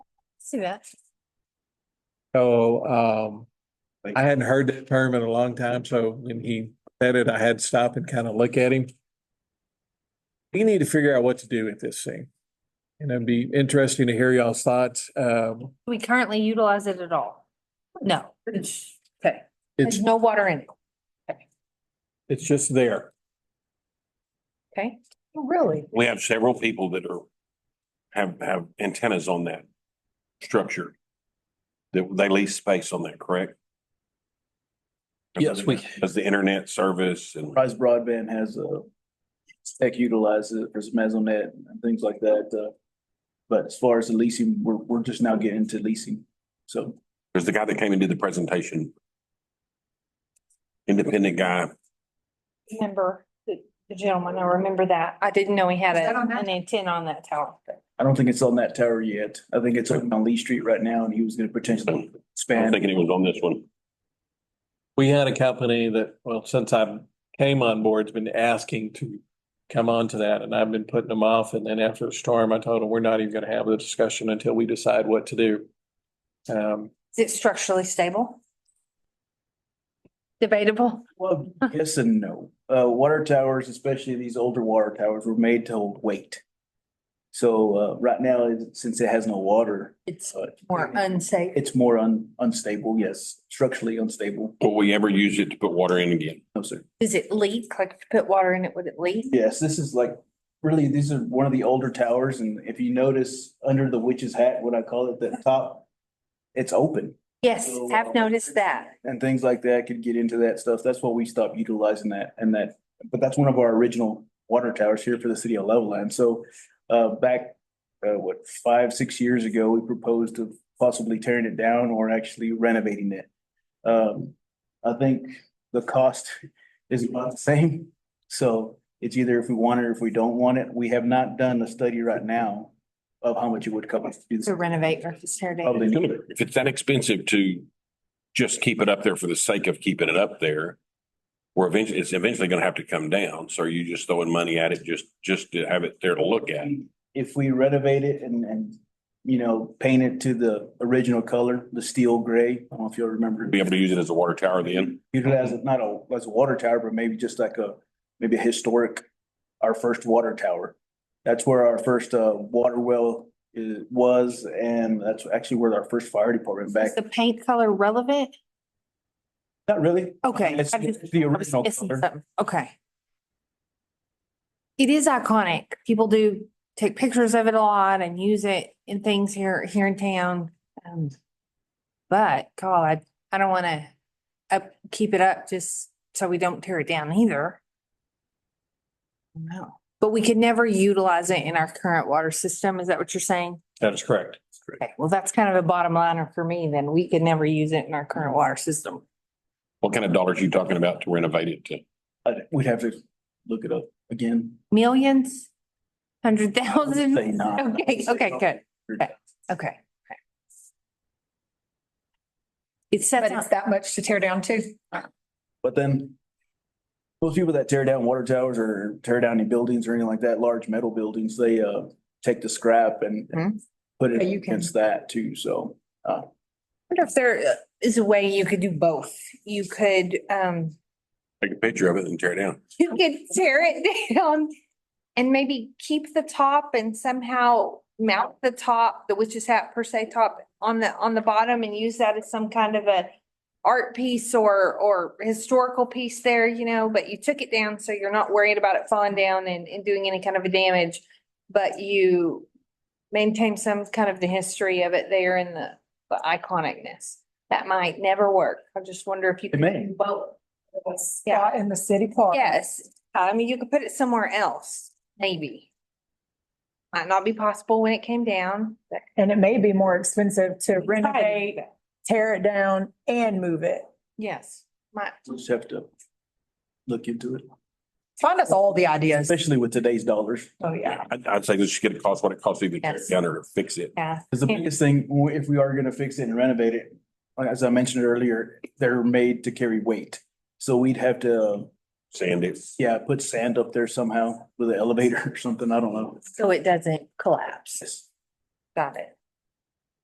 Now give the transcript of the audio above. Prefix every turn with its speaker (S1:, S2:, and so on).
S1: See that?
S2: So um, I hadn't heard that term in a long time, so when he said it, I had to stop and kind of look at him. We need to figure out what to do with this thing. And it'd be interesting to hear y'all's thoughts. Um,
S1: We currently utilize it at all? No. Okay,
S2: it's,
S1: there's no water in it,
S2: it's just there.
S1: okay?
S3: Really?
S4: We have several people that are, have, have antennas on that structure. That they lease space on that, correct?
S5: Yes, we-
S4: As the internet service and
S5: Rise Broadband has a tech utilizes it for Mesonet and things like that. uh, But as far as the leasing, we're, we're just now getting into leasing. So
S4: there's the guy that came and did the presentation. Independent guy.
S1: Remember the the gentleman, I remember that. I didn't know he had
S3: Is that
S1: a-
S3: on that?
S1: an antenna on that tower.
S5: I don't think it's on that tower yet. I think it's on Lee Street right now and he was gonna potentially
S4: I'm
S5: expand.
S4: thinking it was on this one.
S2: We had a company that, well, since I came on board, has been asking to come on to that and I've been putting them off. And then after the storm, I told them, we're not even going to have the discussion until we decide what to do. Um,
S1: Is it structurally stable? Debatable.
S5: Well, yes and no. Uh, water towers, especially these older water towers, were made to hold weight. So, uh, right now, it- since it has no water,
S1: It's
S5: uh,
S1: more unsafe.
S5: it's more un- unstable, yes, structurally unstable.
S4: Will we ever use it to put water in again?
S5: No, sir.
S1: Does it leak? Like if you put water in it, would it leak?
S5: Yes, this is like, really, these are one of the older towers, and if you notice, under the witch's hat, what I call it, that top, it's open,
S1: Yes, I've noticed that.
S5: and things like that could get into that stuff. That's why we stopped utilizing that, and that, but that's one of our original water towers here for the city of Levelland. So, uh, back, uh, what, five, six years ago, we proposed of possibly tearing it down or actually renovating it. Um, I think the cost is about the same. So it's either if we want it or if we don't want it. We have not done a study right now of how much it would cost to do this.
S1: To renovate versus tear down.
S5: Probably
S4: It's gonna- If it's that expensive to just keep it up there for the sake of keeping it up there, we're eventually, it's eventually gonna have to come down. So are you just throwing money at it just, just to have it there to look at?
S5: If we renovate it and, and, you know, paint it to the original color, the steel gray, I don't know if you'll remember.
S4: Be able to use it as a water tower then?
S5: Utilize it, not a, as a water tower, but maybe just like a, maybe a historic, our first water tower. That's where our first, uh, water well is, was, and that's actually where our first fire department back,
S1: Is the paint color relevant?
S5: not really.
S1: Okay.
S5: It's
S1: I just-
S5: it's the
S1: I was
S5: original
S1: missing
S5: color.
S1: something. Okay. It is iconic. People do take pictures of it a lot and use it in things here, here in town. Um, But God, I, I don't want to up, keep it up just so we don't tear it down either. No, but we could never utilize it in our current water system. Is that what you're saying?
S2: that is correct.
S1: Okay, well, that's kind of a bottom liner for me then. We could never use it in our current water system.
S4: What kind of dollars are you talking about to renovate it to?
S5: I'd- We'd have to look it up again.
S1: Millions? Hundred thousand?
S5: Say not.
S1: Oh, Okay, okay, good. Okay, okay. It's set
S3: But it's that much to tear down too.
S5: But then those people that tear down water towers or tear down any buildings or anything like that, large metal buildings, they uh take the scrap and
S1: Mhm.
S5: put it
S3: Yeah, Mm-hmm. you can-
S5: against that too, so.
S1: wonder if there is a way you could do both. You could, um,
S4: Take a picture of it and tear it down.
S1: you could tear it down and maybe keep the top and somehow mount the top, the witch's hat per se top on the, on the bottom and use that as some kind of a art piece or, or historical piece there, you know, but you took it down, so you're not worried about it falling down and, and doing any kind of a damage. But you maintain some kind of the history of it there and the, the iconicness. That might never work. I just wonder if you.
S5: It may.
S1: could Well, yeah.
S3: Yeah, in the city park.
S1: Yes, I mean, you could put it somewhere else, maybe. Might not be possible when it came down. but-
S3: And it may be more expensive to renovate, tear it down and move it.
S1: Yes, might,
S5: We'll just have to look into it,
S3: Find us all the ideas.
S5: especially with today's dollars.
S3: Oh, yeah.
S4: I'd, I'd say this should get a cost, what it costs to either tear
S1: Yes.
S4: it down or fix it.
S1: yeah.
S5: Cause the
S1: Yeah.
S5: biggest thing, w- if we are gonna fix it and renovate it, like, as I mentioned earlier, they're made to carry weight. So we'd have to,
S4: Sand it.
S5: yeah, put sand up there somehow with an elevator or something, I don't know.
S1: So it doesn't collapse. Got it.